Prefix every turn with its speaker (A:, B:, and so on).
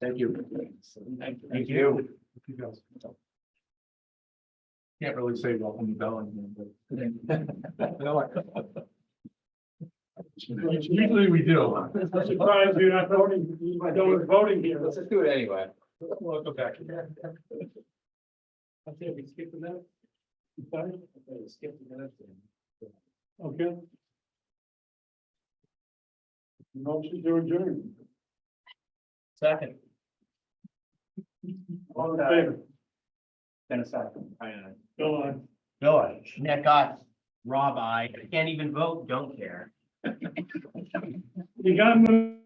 A: Thank you. Thank you. Can't really say welcome to Bellingham, but. Usually we do.
B: I'm surprised you're not voting, you don't voting here.
C: Let's just do it anyway.
A: We'll go back.
B: I think we skip the minute. Sorry? Skip the minute. Okay. Motion to adjourn.
C: Second.
B: All in favor?
C: Dennis, I.
B: Go on.
A: No, I.
C: Nick, I. Rob, I. I Can't even vote, don't care.
B: You gotta move.